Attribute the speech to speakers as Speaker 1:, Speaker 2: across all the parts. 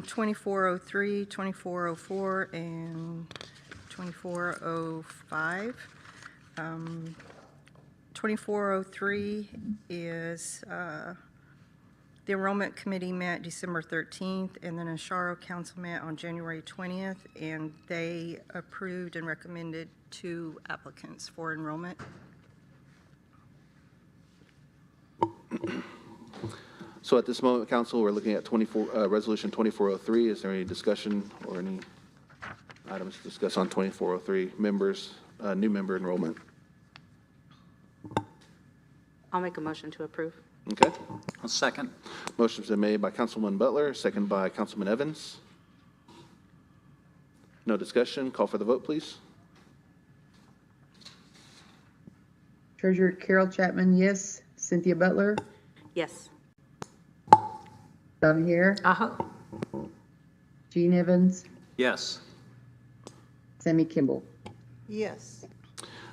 Speaker 1: 2403, 2404, and 2405. Um, 2403 is, uh, the Enrollment Committee met December 13th, and then Asharo Council met on January 20th, and they approved and recommended two applicants for enrollment.
Speaker 2: So at this moment, council, we're looking at 24, uh, Resolution 2403. Is there any discussion or any items to discuss on 2403? Members, uh, new member enrollment.
Speaker 3: I'll make a motion to approve.
Speaker 2: Okay.
Speaker 4: I'll second.
Speaker 2: Motion's been made by Councilman Butler, second by Councilman Evans. No discussion. Call for the vote, please.
Speaker 5: Treasurer Carol Chapman, yes. Cynthia Butler,
Speaker 3: Yes.
Speaker 5: Donna Hare,
Speaker 3: Uh-huh.
Speaker 5: Gene Evans,
Speaker 4: Yes.
Speaker 5: Sammy Kimball.
Speaker 6: yes,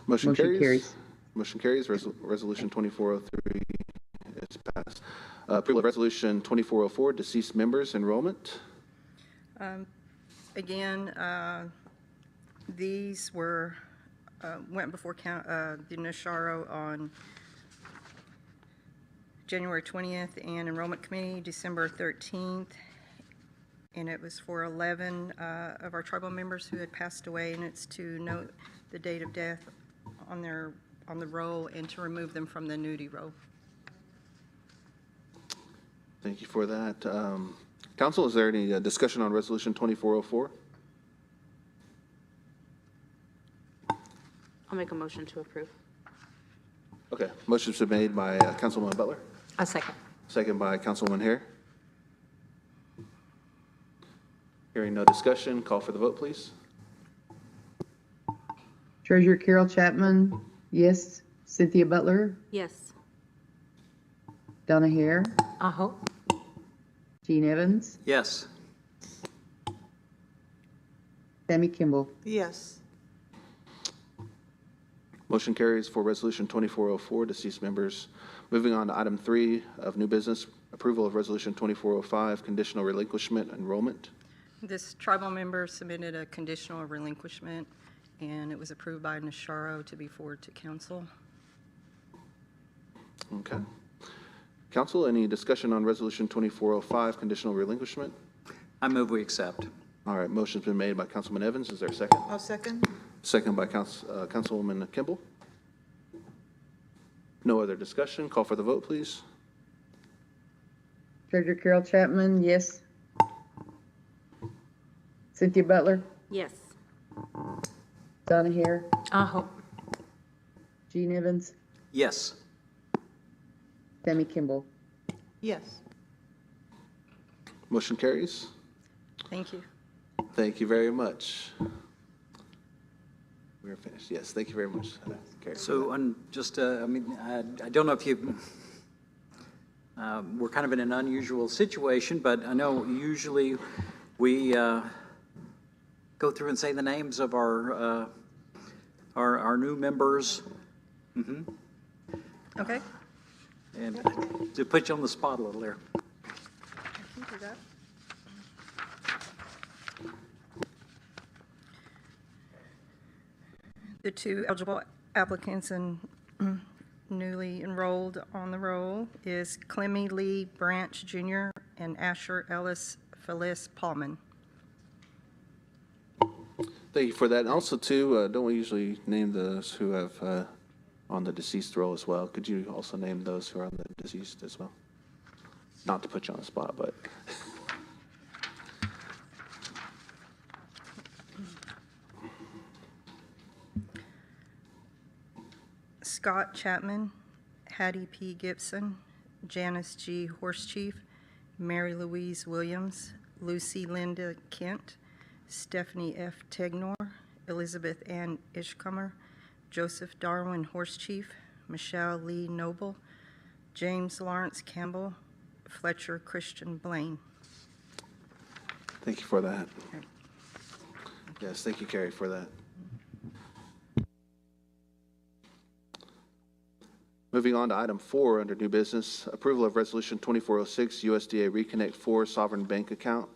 Speaker 2: Motion
Speaker 5: Motion
Speaker 2: carries.
Speaker 5: carries.
Speaker 2: Motion carries. Resol- Resolution 2403 is passed. Uh, Approval of Resolution 2404, deceased members enrollment.
Speaker 1: Again, uh, these were, uh, went before coun- uh, the Nasharo on January 20th and Enrollment Committee December 13th. And it was for 11 uh, of our tribal members who had passed away, and it's to note the date of death on their, on the roll and to remove them from the nudity roll.
Speaker 2: Thank you for that. Um, Council, is there any uh, discussion on Resolution 2404?
Speaker 3: I'll make a motion to approve.
Speaker 2: Okay, motion's been made by uh, Councilwoman Butler,
Speaker 3: A second.
Speaker 2: second by Councilwoman Hare. Hearing no discussion, call for the vote, please.
Speaker 5: Treasurer Carol Chapman, yes. Cynthia Butler,
Speaker 3: Yes.
Speaker 5: Donna Hare,
Speaker 3: Uh-huh.
Speaker 5: Gene Evans,
Speaker 4: Yes.
Speaker 5: Sammy Kimball.
Speaker 6: yes,
Speaker 2: Motion carries for Resolution 2404, deceased members. Moving on to item three of new business, approval of Resolution 2405, conditional relinquishment enrollment.
Speaker 1: This tribal member submitted a conditional relinquishment, and it was approved by Nasharo to be forwarded to council.
Speaker 2: Okay. Council, any discussion on Resolution 2405, conditional relinquishment?
Speaker 4: I move we accept.
Speaker 2: All right, motion's been made by Councilman Evans. Is there a second?
Speaker 6: I'll second,
Speaker 2: Second by Council- uh, Councilwoman Kimball. No other discussion. Call for the vote, please.
Speaker 5: Treasurer Carol Chapman, yes. Cynthia Butler,
Speaker 3: Yes.
Speaker 5: Donna Hare,
Speaker 3: Uh-huh.
Speaker 5: Gene Evans,
Speaker 4: Yes.
Speaker 5: Sammy Kimball.
Speaker 6: yes,
Speaker 2: Motion carries.
Speaker 1: Thank you.
Speaker 2: Thank you very much. We are finished. Yes, thank you very much. Carrie.
Speaker 4: So, on just, uh, I mean, I I don't know if you, um, we're kind of in an unusual situation, but I know usually we uh, go through and say the names of our, uh, our our new members,
Speaker 1: Okay?
Speaker 4: and to put you on the spot a little there.
Speaker 1: The two eligible applicants and newly enrolled on the roll is Clemmy Lee Branch Jr. and Asher Ellis Phyllis Paulman.
Speaker 2: Thank you for that. And also, too, uh, don't we usually name those who have uh, on the deceased roll as well? Could you also name those who are on the deceased as well? Not to put you on the spot, but
Speaker 1: Scott Chapman, Hattie P. Gibson, Janice G. Horsechief, Mary Louise Williams, Lucy Linda Kent, Stephanie F. Tegnor, Elizabeth Ann Ishcomer, Joseph Darwin Horsechief, Michelle Lee Noble, James Lawrence Campbell, Fletcher Christian Blaine.
Speaker 2: thank you for that. Yes, thank you, Carrie, for that. Moving on to item four oh under new business, approval of resolution 2406 USDA Reconnect 4 Sovereign Bank Account.